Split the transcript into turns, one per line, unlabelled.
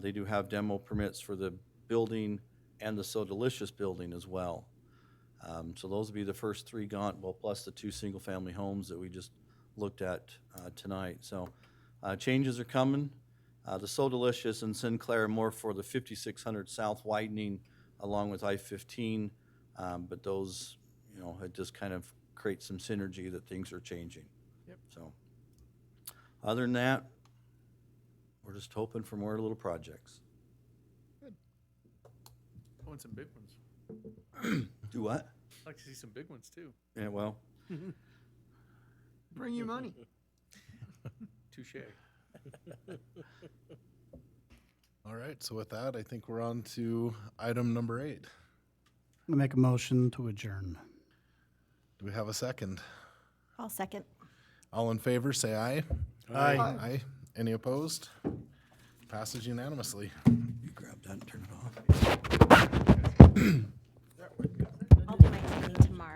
They do have demo permits for the building and the So Delicious building as well. Um, So those would be the first three gone, well, plus the two single-family homes that we just looked at uh, tonight. So uh, changes are coming. Uh, The So Delicious and Sinclair are more for the 5600 South widening along with I-15. um, But those, you know, it just kind of creates some synergy that things are changing.
Yep.
So, other than that, we're just hoping for more little projects.
I want Oh, some big ones.
Do what?
I'd like to see some big ones too.
Yeah, well,
Bring your money.
Touche.
All right, so with that, I think we're on to item number eight.
I make a motion to adjourn.
Do we have a second?
I'll second.
All in favor, say aye.
Aye.
Aye. Any opposed? Passes unanimously.
you grab that and turn it off.